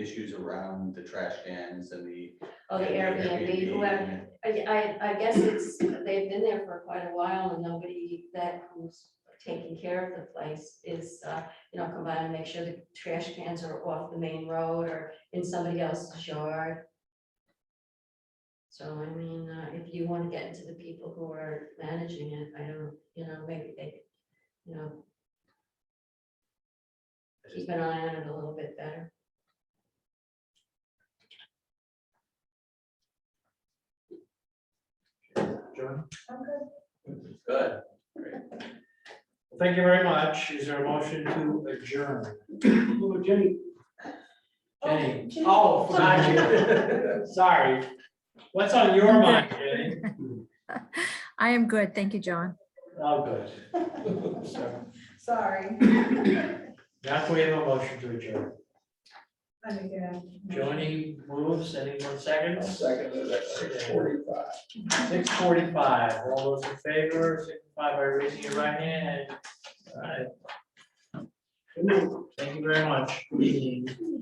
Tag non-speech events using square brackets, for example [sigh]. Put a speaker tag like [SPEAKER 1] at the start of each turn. [SPEAKER 1] issues around the trash cans and the.
[SPEAKER 2] Oh, the Airbnb, whoever, I, I, I guess it's, they've been there for quite a while and nobody that who's taking care of the place is, uh, you know, come by and make sure the trash cans are off the main road or in somebody else's yard. So I mean, uh, if you want to get into the people who are managing it, I don't, you know, maybe they, you know, keep an eye on it a little bit better.
[SPEAKER 3] John?
[SPEAKER 1] Good.
[SPEAKER 3] Well, Thank you very much. Is there a motion to adjourn?
[SPEAKER 4] Oh, Jenny.
[SPEAKER 3] Jenny?
[SPEAKER 4] Jenny.
[SPEAKER 3] Oh, forgot you. [laughs] Sorry. What's on your mind, Jenny?
[SPEAKER 5] I am good. Thank you, John.
[SPEAKER 3] Oh, good. So,
[SPEAKER 6] Sorry.
[SPEAKER 3] Now can we have a motion to adjourn.
[SPEAKER 6] I think, yeah.
[SPEAKER 3] Joni moves, anyone seconds?
[SPEAKER 7] Second, that's six forty-five.
[SPEAKER 3] Six forty-five. All those in favor, signify by raising your right hand. All right. Thank you very much. Meeting